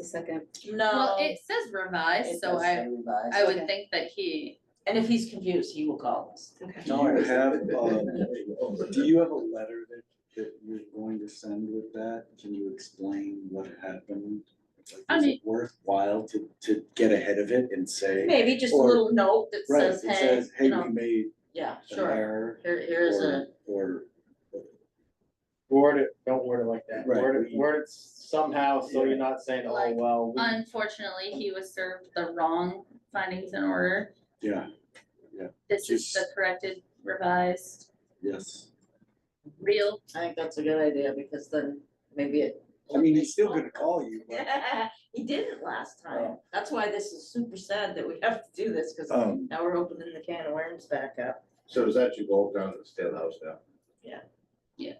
the second. Well, No. it says revised, Um, It so does I, say revised. I Okay. would think that he, And if he's confused, he will call us. Okay. Do Don't you worry. have, um, do you have a letter that, that you're going to send with that? Can you explain what happened? Like, I Is mean- it worthwhile to, to get ahead of it and say, Maybe just a Or- little note that right, says, it hey, says, you hey, we know, made yeah, an sure, error. here, here's a, Or, Word it, don't word it like that, Right, word it, we- word it somehow, so you're not saying, oh, Like, well, we- unfortunately, he was served the wrong findings and order. yeah, This is the Just- corrected revised yes. real. I think that's a good idea, because then maybe it. I mean, he's still gonna call you, but, He didn't last time, Oh. that's why this is super sad that we have to do this, cause um, now we're opening the can of worms back up. So does that should go down to the state house now?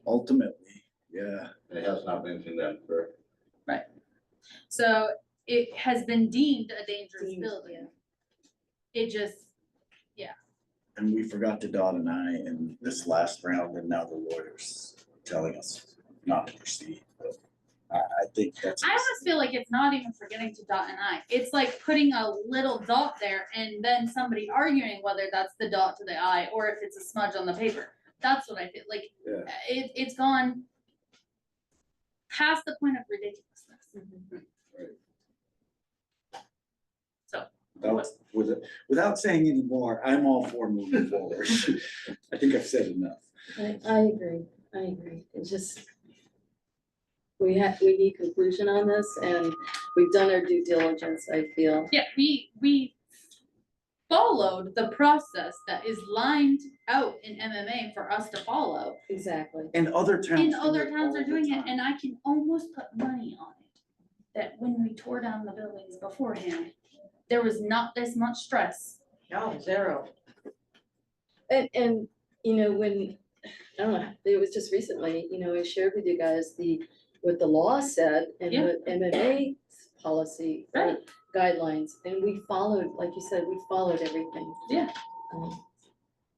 ultimately, yeah. It has not been to them for, So it has been deemed a dangerous Deemed, building. It just, And we forgot to dot an I in this last round, and now the lawyer's telling us not to proceed, but I, I think that's. I almost feel like it's not even forgetting to dot an I. It's like putting a little dot there and then somebody arguing whether that's the dot to the I or if it's a smudge on the paper. That's what I feel like. Yeah. It, it's gone past the point of ridiculousness. Mm-hmm. So. Without, with, without saying any more, I'm all for moving forward. I think I've said enough. I, I agree, I agree, it's just. We have, we need conclusion on this and we've done our due diligence, I feel. Yeah, we, we followed the process that is lined out in MMA for us to follow. Exactly. And other towns. And do other it towns all are the doing it, time. and I can almost put money on it. That when we tore down the buildings beforehand, there was not this much stress. No, zero. And, and, you know, when, I don't know, it was just recently, you know, I shared with you guys the, what the law said and Yeah. the MMA policy. uh, Right. Guidelines, and we followed, like you said, we followed everything. Yeah. Um,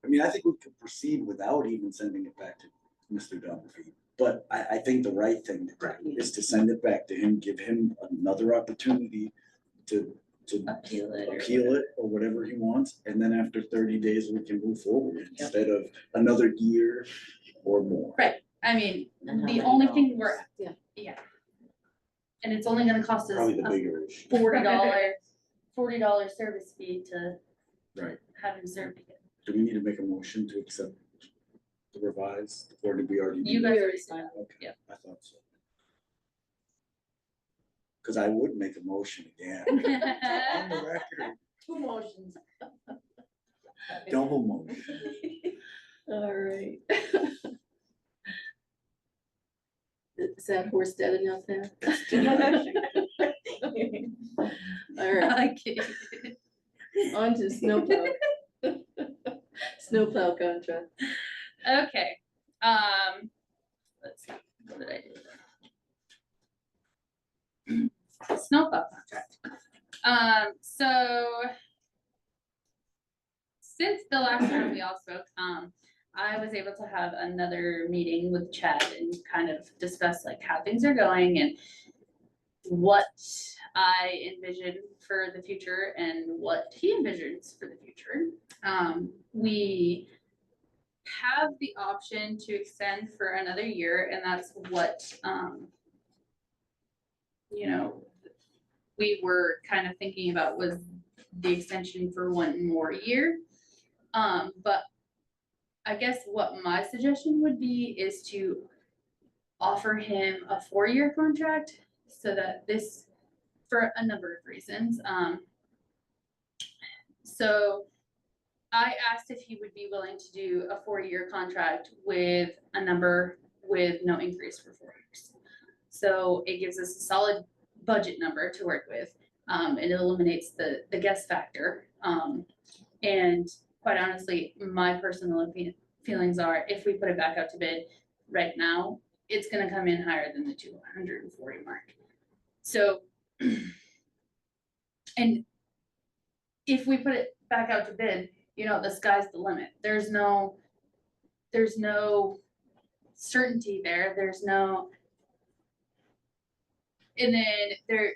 I mean, I think we could proceed without even sending it back to Mr. Dunphy. But I, I think the right thing to do is to send it back to him, give him another opportunity to, to Appeal it or appeal it or whatever he wants. And then after thirty days, we can move forward instead of another year or more. I mean, And how the many only thing dollars? we're, Yeah. yeah. And it's only gonna cost us Probably the a bigger issue. forty dollar, forty dollar service fee to Right. have him served again. Do we need to make a motion to accept the revised, or did we already? do You that? guys we already already signed. Okay, yeah. I thought so. Cause I would make a motion again, on the record, Two motions. double motion. All right. Is that horse dead enough now? All right, Okay. on to snowplow. Snowplow contract. Okay, um, let's see, what did I do? there? Snowplow contract. Um, so since the last time we all spoke, um, I was able to have another meeting with Chad and kind of discuss like how things are going and what I envision for the future and what he envisions for the future. Um, we have the option to extend for another year, and that's what, um, you know, we were kind of thinking about was the extension for one more year. Um, but I guess what my suggestion would be is to offer him a four-year contract so that this, for a number of reasons, um. So I asked if he would be willing to do a four-year contract with a number with no increase for four years. So it gives us a solid budget number to work with. Um, it eliminates the, the guess factor. Um, and quite honestly, my personal opi- feelings are if we put it back out to bid right now, it's gonna come in higher than the two hundred and forty mark. So. And if we put it back out to bid, you know, the sky's the limit. There's no, there's no certainty there. There's no. And then there,